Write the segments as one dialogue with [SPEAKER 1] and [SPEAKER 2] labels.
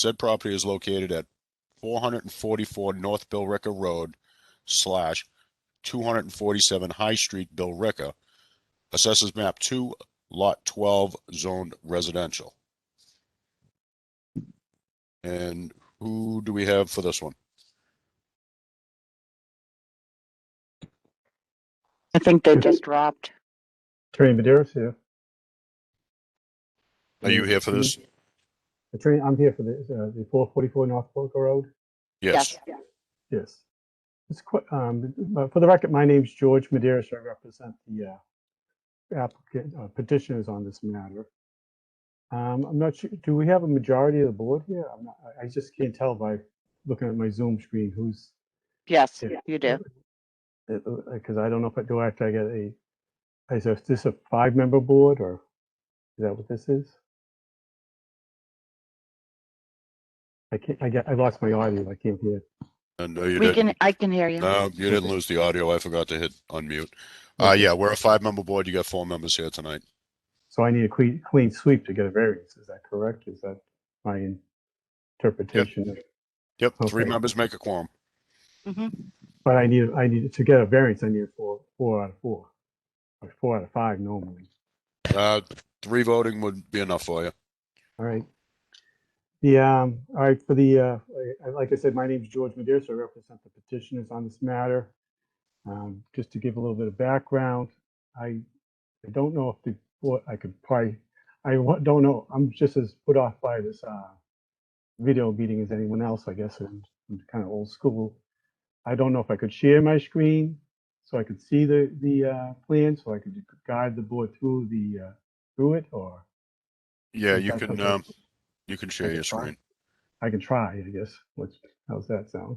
[SPEAKER 1] Said property is located at four hundred and forty-four North Billerica Road slash two hundred and forty-seven High Street, Billerica. Assessors map two, lot twelve, zoned residential. And who do we have for this one?
[SPEAKER 2] I think they just dropped.
[SPEAKER 3] Attorney Madeira's here.
[SPEAKER 1] Are you here for this?
[SPEAKER 3] Attorney, I'm here for the, uh, the four forty-four North Boca Road.
[SPEAKER 1] Yes.
[SPEAKER 3] Yes. It's quite, um, but for the record, my name's George Madeira. I represent the, uh, applicant, uh, petitioners on this matter. Um, I'm not sure, do we have a majority of the board here? I'm not, I- I just can't tell by looking at my Zoom screen who's,
[SPEAKER 2] Yes,
[SPEAKER 3] Yeah.
[SPEAKER 2] you do.
[SPEAKER 3] uh, because I don't know if I, do I have to get a, is this- this a five-member board or is that what this is? I can't, I get, I lost my audio. I can't hear.
[SPEAKER 1] And uh, you
[SPEAKER 2] We
[SPEAKER 1] didn't,
[SPEAKER 2] can, I can hear you.
[SPEAKER 1] no, you didn't lose the audio. I forgot to hit unmute. Uh, yeah, we're a five-member board. You got four members here tonight.
[SPEAKER 3] So I need a clean, clean sweep to get a variance. Is that correct? Is that my interpretation? of-
[SPEAKER 1] Yep, three
[SPEAKER 3] Okay.
[SPEAKER 1] members make a quorum.
[SPEAKER 3] But I need, I need, to get a variance, I need a four, four out of four. Or four out of five normally.
[SPEAKER 1] Uh, three voting would be enough for you.
[SPEAKER 3] All right. The, um, all right, for the, uh, I- like I said, my name's George Madeira, so I represent the petitioners on this matter. Um, just to give a little bit of background, I, I don't know if the, board I could probably, I wa- don't know, I'm just as put off by this, uh, video meeting as anyone else, I guess, and I'm kind of old school. I don't know if I could share my screen so I could see the, the, uh, plan, so I could guide the board through the, uh, through it, or
[SPEAKER 1] Yeah,
[SPEAKER 3] Is
[SPEAKER 1] you
[SPEAKER 3] that
[SPEAKER 1] can,
[SPEAKER 3] something-
[SPEAKER 1] um, you can share
[SPEAKER 3] Okay,
[SPEAKER 1] your
[SPEAKER 3] fine.
[SPEAKER 1] screen.
[SPEAKER 3] I can try, I guess. What's, how's that sound?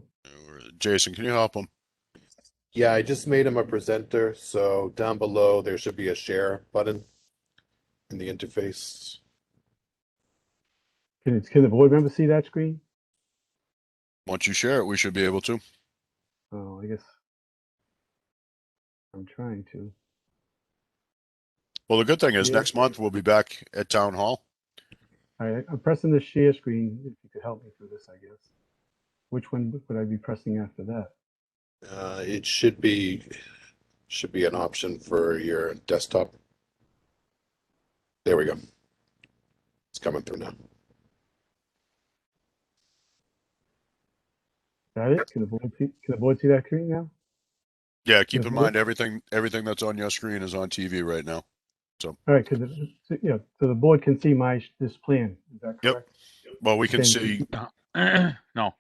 [SPEAKER 1] Jason, can you help him?
[SPEAKER 4] Yeah, I just made him a presenter, so down below there should be a share button in the interface.
[SPEAKER 3] Can, it- can the board member see that screen?
[SPEAKER 1] Once you share it, we should be able to.
[SPEAKER 3] Oh, I guess. I'm trying to.
[SPEAKER 1] Well, the good thing is
[SPEAKER 3] Yeah.
[SPEAKER 1] next month we'll be back at town hall.
[SPEAKER 3] All right, I'm pressing the share screen. If you could help me through this, I guess. Which one would- would I be pressing after that?
[SPEAKER 4] Uh, it should be, should be an option for your desktop. There we go. It's coming through now.
[SPEAKER 3] Got it? Can the board see, can the board see that screen now?
[SPEAKER 1] Yeah, keep in
[SPEAKER 3] Mhm.
[SPEAKER 1] mind, everything, everything that's on your screen is on TV right now.
[SPEAKER 3] All right, could the, so, yeah, so the board can see my, this plan. Is that
[SPEAKER 1] Yep.
[SPEAKER 3] correct?
[SPEAKER 1] Well, we can
[SPEAKER 3] Okay.
[SPEAKER 1] see,
[SPEAKER 5] no,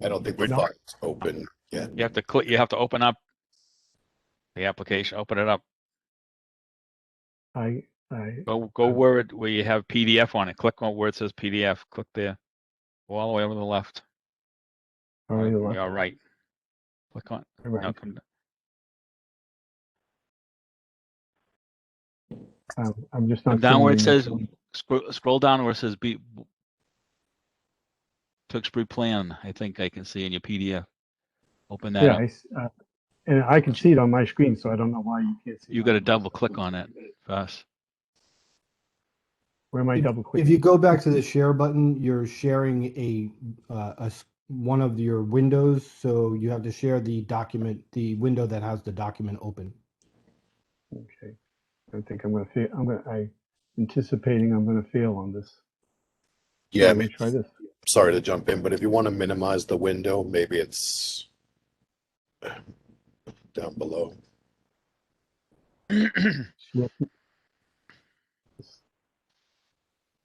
[SPEAKER 4] I don't think the
[SPEAKER 3] No.
[SPEAKER 4] file's open yet.
[SPEAKER 5] you have to click, you have to open up the application, open it up,
[SPEAKER 3] I, I,
[SPEAKER 5] go, go
[SPEAKER 3] Um,
[SPEAKER 5] where it, where you have PDF on it, click on where it says PDF, click there. Go all the way over to the left,
[SPEAKER 3] all
[SPEAKER 5] or
[SPEAKER 3] right, all
[SPEAKER 5] or
[SPEAKER 3] right,
[SPEAKER 5] your right. Click on,
[SPEAKER 3] all
[SPEAKER 5] no,
[SPEAKER 3] right.
[SPEAKER 5] come down.
[SPEAKER 3] Um, I'm just not.
[SPEAKER 5] Come down where it
[SPEAKER 3] seeing
[SPEAKER 5] says, scroll, scroll down where it says be. Tewksbury plan, I think I can see in your PDF. Open that
[SPEAKER 3] Yeah,
[SPEAKER 5] up,
[SPEAKER 3] I s- uh, and I can see it on my screen, so I don't know why you can't see.
[SPEAKER 5] you
[SPEAKER 3] mine.
[SPEAKER 5] gotta double click on it first.
[SPEAKER 3] Where am I double clicking?
[SPEAKER 6] If you go back to the share button, you're sharing a, uh, a s- one of your windows, so you have to share the document, the window that has the document open.
[SPEAKER 3] Okay. I think I'm gonna fail. I'm gonna, I anticipating I'm gonna fail on this.
[SPEAKER 4] Yeah, I
[SPEAKER 3] Let me
[SPEAKER 4] mean,
[SPEAKER 3] try this.
[SPEAKER 4] sorry to jump in, but if you want to minimize the window, maybe it's down below.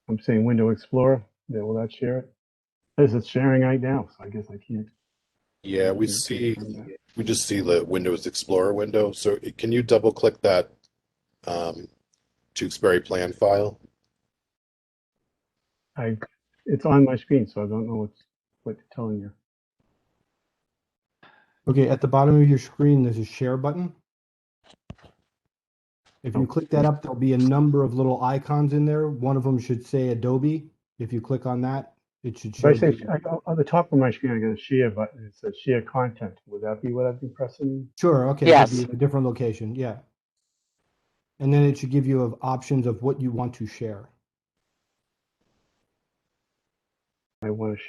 [SPEAKER 3] I'm saying Window Explorer. Yeah, will that share it? There's it's sharing right now, so I guess I can't.
[SPEAKER 4] Yeah, we
[SPEAKER 3] can't
[SPEAKER 4] see,
[SPEAKER 3] confirm that.
[SPEAKER 4] We just see the Windows Explorer window. So it- can you double click that um, Tewksbury plan file?
[SPEAKER 3] I, it's on my screen, so I don't know what's, what it's telling you.
[SPEAKER 6] Okay, at the bottom of your screen, there's a share button. If you click that up, there'll be a number of little icons in there. One of them should say Adobe. If you click on that, it should
[SPEAKER 3] So
[SPEAKER 6] show.
[SPEAKER 3] I say,
[SPEAKER 6] the-
[SPEAKER 3] I, on- on the top of my screen, I got a share button. It says share content. Would that be what I've been pressing?
[SPEAKER 6] Sure, okay. that'd
[SPEAKER 2] Yes.
[SPEAKER 6] be in A different location, yeah. And then it should give you of options of what you want to share.
[SPEAKER 3] I want to